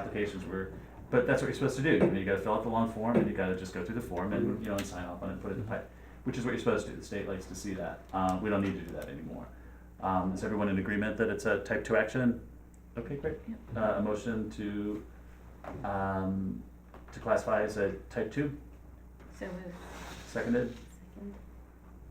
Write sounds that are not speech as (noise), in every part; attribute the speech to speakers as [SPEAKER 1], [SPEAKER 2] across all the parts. [SPEAKER 1] applications were, but that's what you're supposed to do. You know, you gotta fill out the long form and you gotta just go through the form and, you know, and sign off on it, put it in the pipe, which is what you're supposed to do. The state likes to see that. Uh, we don't need to do that anymore. Um, is everyone in agreement that it's a type two action? Okay, great. Uh, a motion to, um, to classify as a type two,
[SPEAKER 2] So moved.
[SPEAKER 1] seconded,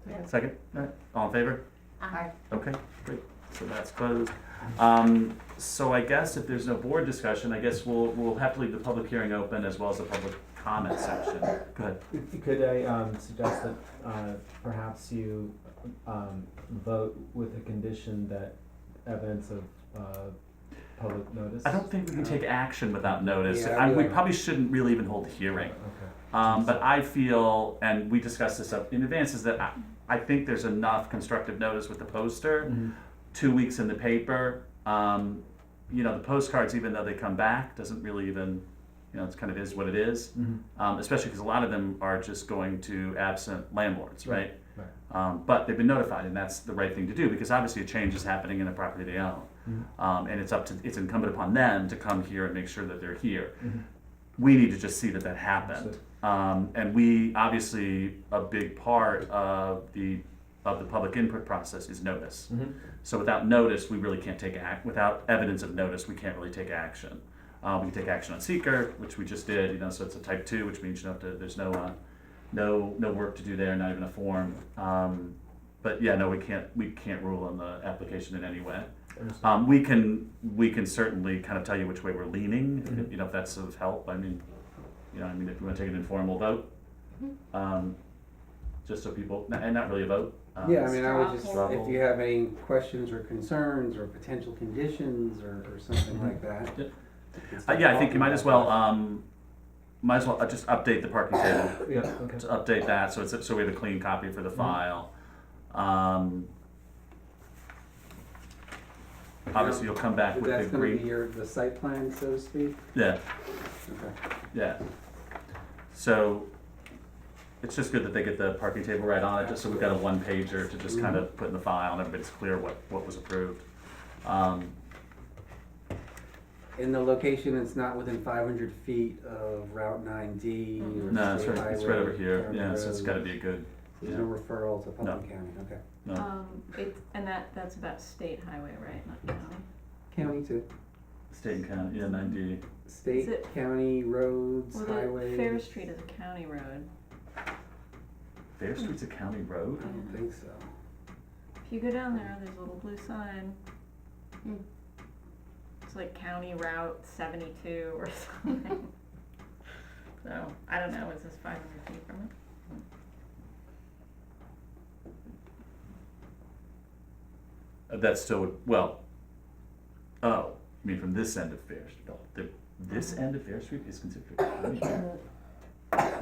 [SPEAKER 2] Second.
[SPEAKER 1] second, all right, all in favor?
[SPEAKER 2] Aye.
[SPEAKER 1] Okay, great, so that's closed. Um, so I guess if there's no board discussion, I guess we'll, we'll have to leave the public hearing open as well as the public comment section. Go ahead.
[SPEAKER 3] Could I um, suggest that uh, perhaps you um, vote with a condition that evidence of uh, public notice?
[SPEAKER 1] I don't think we can take action without notice.
[SPEAKER 4] Yeah,
[SPEAKER 1] I, we
[SPEAKER 4] yeah.
[SPEAKER 1] probably shouldn't really even hold a hearing.
[SPEAKER 3] Okay.
[SPEAKER 1] Um, but I feel, and we discussed this up in advance, is that I, I think there's enough constructive notice with the poster,
[SPEAKER 3] Mhm.
[SPEAKER 1] two weeks in the paper. Um, you know, the postcards, even though they come back, doesn't really even, you know, it's kind of is what it is.
[SPEAKER 3] Mhm.
[SPEAKER 1] um, especially because a lot of them are just going to absent landlords, right?
[SPEAKER 3] Right.
[SPEAKER 1] Um, but they've been notified, and that's the right thing to do because obviously a change is happening in a property they own,
[SPEAKER 3] Mhm.
[SPEAKER 1] um, and it's up to it's incumbent upon them to come here and make sure that they're here.
[SPEAKER 3] Mhm.
[SPEAKER 1] We need to just see that that happened, um, and we obviously a big part of the of the public input process is notice.
[SPEAKER 3] Mhm.
[SPEAKER 1] So without notice, we really can't take act. Without evidence of notice, we can't really take action. Uh, we can take action on seeker, which we just did. You know, so it's a type two, which means you don't have to. There's no, uh, no, no work to do there. Not even a form. Um, but yeah, no, we can't. We can't rule on the application in any way.
[SPEAKER 3] Understood.
[SPEAKER 1] Um, we can. We can certainly kind of tell you which way we're leaning. if-
[SPEAKER 3] Mhm.
[SPEAKER 1] You know, if that's of help. I mean, you know, I mean, if you want to take an informal vote,
[SPEAKER 2] Mhm.
[SPEAKER 1] um, just so people, and not really a vote. Um,
[SPEAKER 4] Yeah, I mean, I would just,
[SPEAKER 2] straw
[SPEAKER 1] poll.
[SPEAKER 4] if you have any questions or concerns or potential conditions or, or something like that.
[SPEAKER 1] Mm-hmm. Yeah.
[SPEAKER 4] it's
[SPEAKER 1] Uh, yeah, I think you might as well,
[SPEAKER 4] not-
[SPEAKER 1] um, might as well uh, just update the parking table, (clears throat)
[SPEAKER 3] Yeah, okay.
[SPEAKER 1] to update that, so it's, so we have a clean copy
[SPEAKER 4] Mm-hmm.
[SPEAKER 1] for the file. Um, obviously, you'll come back
[SPEAKER 4] That's
[SPEAKER 1] with the
[SPEAKER 4] gonna be
[SPEAKER 1] green,
[SPEAKER 4] your, the site plan, so to speak?
[SPEAKER 1] yeah,
[SPEAKER 4] Okay.
[SPEAKER 1] yeah. So, it's just good that they get the parking table right on it, just so we've got a one pager to just kind
[SPEAKER 4] Mm-hmm.
[SPEAKER 1] of put in the file, and everybody's clear what, what was approved. Um,
[SPEAKER 4] In the location, it's not within five hundred feet of Route nine D
[SPEAKER 2] Mm-hmm.
[SPEAKER 4] or
[SPEAKER 1] no, it's
[SPEAKER 4] state
[SPEAKER 1] right,
[SPEAKER 4] highway.
[SPEAKER 1] it's right over here,
[SPEAKER 4] county
[SPEAKER 1] yeah, so it's
[SPEAKER 4] road.
[SPEAKER 1] gotta be a good, uh,
[SPEAKER 4] There's no referral to Putnam County, okay.
[SPEAKER 1] no,
[SPEAKER 2] Um, it's, and that, that's about state highway, right, not county?
[SPEAKER 4] County to
[SPEAKER 1] state and county, yeah, ninety.
[SPEAKER 4] state,
[SPEAKER 2] it-
[SPEAKER 4] county, roads,
[SPEAKER 2] Well, the
[SPEAKER 4] highways.
[SPEAKER 2] Fair Street is a county road.
[SPEAKER 1] Fair Street's a county road?
[SPEAKER 4] I don't think so.
[SPEAKER 2] If you go down there, there's a little blue sign. It's like County Route seventy-two or (laughs) something. So, I don't know, is this five hundred feet from it?
[SPEAKER 1] Uh, That still would, well, oh, I mean from this end of Fair Street, no, the, this
[SPEAKER 2] Uh-huh.
[SPEAKER 1] end of Fair Street is considered a county road.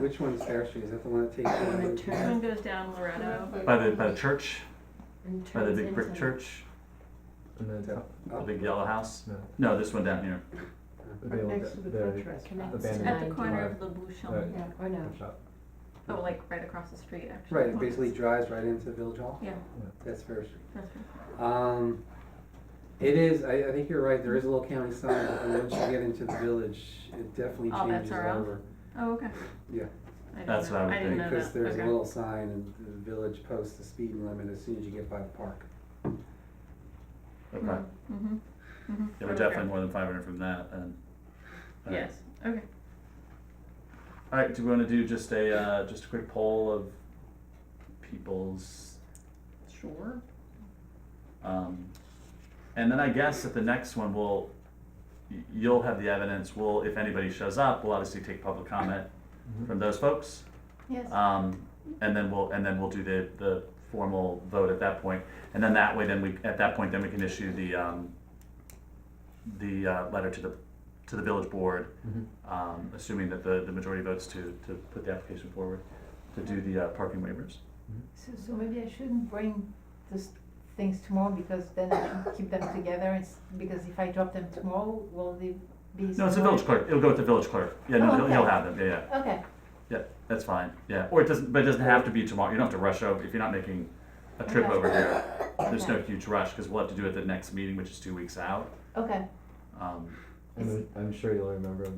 [SPEAKER 4] Which one's Fair Street? Is that the one that takes you?
[SPEAKER 5] When
[SPEAKER 4] right-
[SPEAKER 5] it
[SPEAKER 2] This one
[SPEAKER 5] turns,
[SPEAKER 2] goes down Loretto.
[SPEAKER 1] By the, by the church,
[SPEAKER 5] and
[SPEAKER 1] by the
[SPEAKER 5] turns
[SPEAKER 1] big brick
[SPEAKER 5] into-
[SPEAKER 1] church,
[SPEAKER 3] And then top,
[SPEAKER 1] the
[SPEAKER 4] Up?
[SPEAKER 1] big yellow house,
[SPEAKER 3] no,
[SPEAKER 1] no, this one down here,
[SPEAKER 3] the
[SPEAKER 5] Right
[SPEAKER 3] old-
[SPEAKER 5] next to the
[SPEAKER 3] the-
[SPEAKER 5] French
[SPEAKER 3] abandoned
[SPEAKER 5] restaurant. It's
[SPEAKER 2] At the
[SPEAKER 5] nine
[SPEAKER 2] corner
[SPEAKER 3] car.
[SPEAKER 2] of the
[SPEAKER 3] Right.
[SPEAKER 2] Bouchon.
[SPEAKER 5] Yeah, I know.
[SPEAKER 3] shop.
[SPEAKER 2] Oh, like right across the street, actually.
[SPEAKER 4] Right, it basically drives right into Village Hall.
[SPEAKER 2] Yeah,
[SPEAKER 4] That's Fair Street.
[SPEAKER 2] that's right.
[SPEAKER 4] Um, it is, I, I think you're right, there is a little county sign, but then once you get into the village, it definitely
[SPEAKER 2] All bets
[SPEAKER 4] changes
[SPEAKER 2] are off?
[SPEAKER 4] over.
[SPEAKER 2] Oh, okay.
[SPEAKER 4] Yeah.
[SPEAKER 2] I didn't
[SPEAKER 1] That's
[SPEAKER 2] know-
[SPEAKER 1] what I would
[SPEAKER 2] didn't
[SPEAKER 1] think.
[SPEAKER 2] know
[SPEAKER 4] Because
[SPEAKER 2] that.
[SPEAKER 4] there's a
[SPEAKER 2] Okay.
[SPEAKER 4] little sign and the village posts the speed limit as soon as you get by the park.
[SPEAKER 1] okay,
[SPEAKER 2] Mm-hmm, mm-hmm.
[SPEAKER 1] yeah, we're definitely more than five hundred from that, and. all right.
[SPEAKER 2] Yes, okay.
[SPEAKER 1] Alright, do we wanna do just a, uh, just a quick poll of people's
[SPEAKER 2] Sure.
[SPEAKER 1] Um, and then I guess at the next one, we'll, y- you'll have the evidence, we'll, if anybody shows up, we'll obviously take public comment from those folks.
[SPEAKER 2] Yes.
[SPEAKER 1] Um, and then we'll, and then we'll do the, the formal vote at that point. And then that way, then we, at that point, then we can issue the, um, the, uh, letter to the, to the village board,
[SPEAKER 3] Mhm.
[SPEAKER 1] um, assuming that the, the majority votes to, to put the application forward, to do the, uh, parking waivers.
[SPEAKER 3] Mm-hmm.
[SPEAKER 5] So, so maybe I shouldn't bring these things tomorrow because then I can keep them together. It's because if I drop them tomorrow, will they be?
[SPEAKER 1] No, it's the
[SPEAKER 5] somewhere?
[SPEAKER 1] village clerk, it'll go with the village clerk, yeah, no,
[SPEAKER 5] Oh,
[SPEAKER 1] he'll, he'll
[SPEAKER 5] okay.
[SPEAKER 1] have them, yeah, yeah.
[SPEAKER 5] Okay,
[SPEAKER 1] Yeah, that's fine. Yeah, or it doesn't, but it doesn't have to be tomorrow. You don't have to rush over if you're not making a trip
[SPEAKER 5] Okay.
[SPEAKER 1] over here. There's no huge rush because we'll have to do it the next meeting, which is two weeks out.
[SPEAKER 5] okay,
[SPEAKER 1] Um,
[SPEAKER 3] I'm, I'm sure you'll remember them